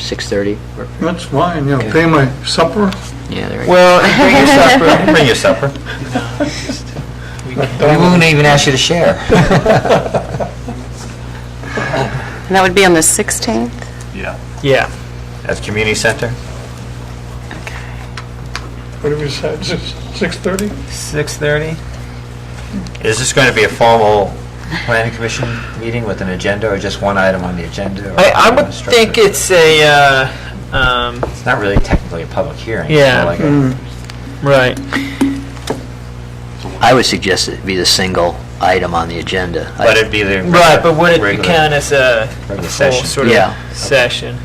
6:30? Or- That's fine, you know, Okay. pay my supper. Yeah, there we go. Well, bring your supper, bring your supper. We won't even ask you to share. And that would be on the 16th? Yeah. Yeah. At the community center? What do we say, six- 6:30? 6:30? Is this going to be a formal planning commission meeting with an agenda or just one item on the agenda? or I, I how you would wanna structure think it? it's a, uh, um, It's not really technically a public hearing. Yeah. Mm. It's more Mm. like right. I would suggest it be the single item on the agenda. a- But it'd be the. Right, but would it regular- count as a regular full session. sort Yeah. of session?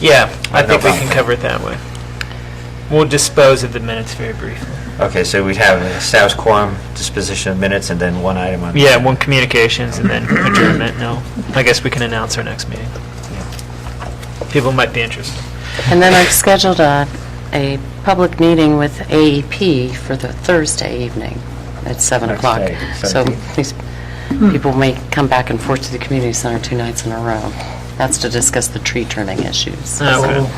Yeah, I No think we problem. can cover it that way. We'll dispose of the minutes very briefly. Okay, so we'd have a status quorum, disposition of minutes, and then one item on. Yeah, one communications and then adjournment, no. I guess we can announce our next meeting. People might be interested. And then I've scheduled a, a public meeting with AEP for the Thursday evening at 7 Next o'clock. day, So 17th. these people may come back and forth to the community center two nights in a row. That's to discuss the tree turning issues. Uh, Okay. Okay.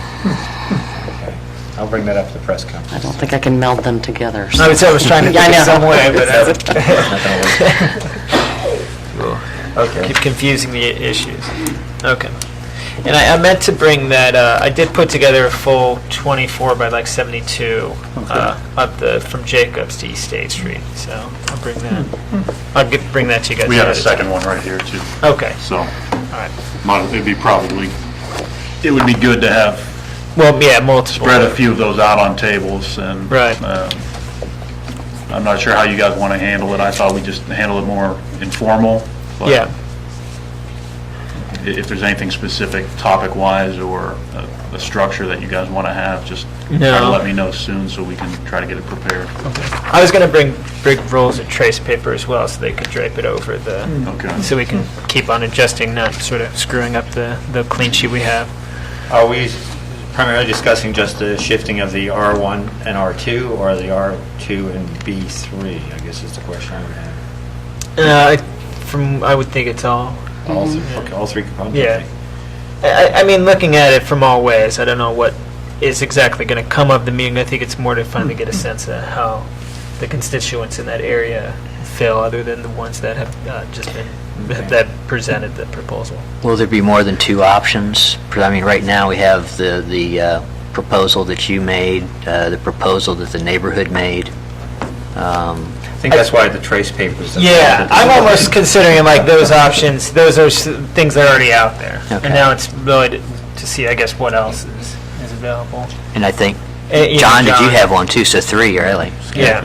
I'll bring that up at the press conference. I don't think I can meld them together. so- I was, I was trying to Yeah, I think of know. some way, but I uh, Okay. keep confusing the i- issues. Okay. And I, I meant to bring that, uh, I did put together a full 24 by like 72 uh, up the, from Jacobs to East State Street, so I'll bring that. I'll get, bring that to you guys. We have a later. second one right here, too. Okay, So, all right. might- it'd be probably, it would be good to have, Well, yeah, multiple. spread a few of those out on tables and. Right. um, I'm not sure how you guys want to handle it. I thought we just handle it more informal. but Yeah, i- If there's anything specific topic-wise or a- a structure that you guys want to have, just try to No. let me know soon so we can try to get it prepared. I was gonna bring big rolls of trace paper as well, so they could drape it over the, Okay. so we can keep on adjusting, not sort of screwing up the, the clean sheet we have. Are we primarily discussing just the shifting of the R1 and R2, or the R2 and B3, I guess is the question I would have? Uh, I- from, I would think it's all Mm-hmm. All three, okay, all three components? Yeah. I, I- I mean, looking at it from all ways, I don't know what is exactly going to come of the meeting. I think it's more to finally Mm-hmm. get a sense of how the constituents in that area feel, other than the ones that have uh, just been Okay. that presented the proposal. Will there be more than two options? 'Cause, I mean, right now, we have the, the uh, proposal that you made, uh, the proposal that the neighborhood made. Um, I think that's why the trace papers. Yeah, I'm almost considering like those options. Those are s- things that are already out there, Okay. and now it's really to, to see, I guess, what else is, is available. And I think, Uh, you know, John, did you John- have one too? So three, really? Yeah.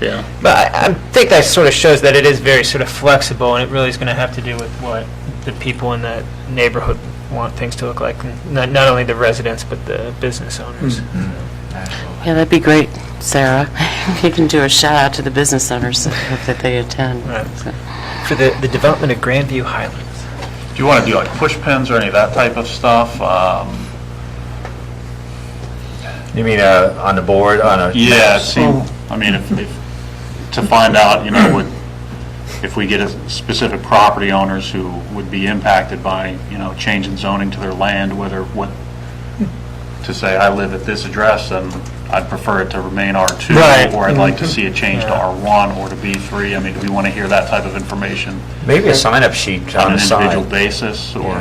But I, I think that sort of shows that it is very sort of flexible, and it really is going to have to do with what the people in that neighborhood want things to look like, and not, not only the residents, but the business owners. Yeah, that'd be great, Sarah. You can do a shout out to the business owners that they attend. Right. For the, the development of Grandview Highlands. Do you want to do like push pins or any of that type of stuff? Um, You mean uh, on the board, on a? Yeah, see, I mean, if, if, to find out, you know, would, if we get a specific property owners who would be impacted by, you know, change in zoning to their land, whether, what, to say, I live at this address, and I'd prefer it to remain R2. Right. Or I'd Mm-hmm. like to see a change to R1 or to B3. I mean, do we want to hear that type of information Maybe a sign-up sheet on on an the individual side. basis, or?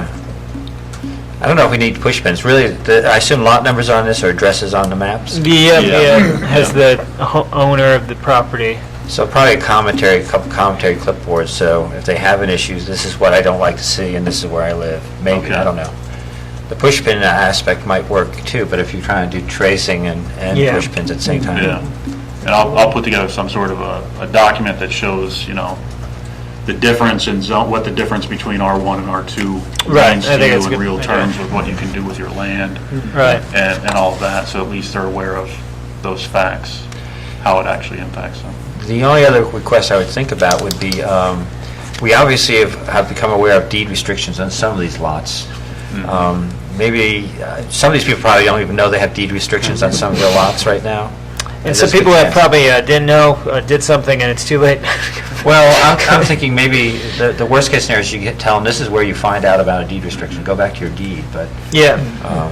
I don't know if we need push pins, really, the- I assume lot numbers on this or addresses on the maps? The, uh, Yeah. the, uh, has the ho- owner of the property. So probably a commentary, a couple commentary clipboards, so if they have an issue, this is what I don't like to see, and this is where I live, maybe, I Okay. don't know. The push pin aspect might work too, but if you're trying to do tracing and, Yeah. and push pins at the same time. Yeah, and I'll, I'll put together some sort of a, a document that shows, you know, the difference in zone, what the difference between R1 and R2 Right, means I think to that's a you in good Mm-hmm. real idea. terms with what you can do with your land Right. and, and all of that, so at least they're aware of those facts, how it actually impacts them. The only other request I would think about would be, um, we obviously have, have become aware of deed restrictions on some of these lots. Um, Maybe, uh, some of these people probably don't even know they have deed restrictions on some of their lots right now. And As some this people that begins. probably uh, didn't know, uh, did something and it's too late. Well, I'm, I'm thinking maybe the, the worst case scenario is you get- tell them, this is where you find out about a deed restriction, go back to your deed, but Yeah. um,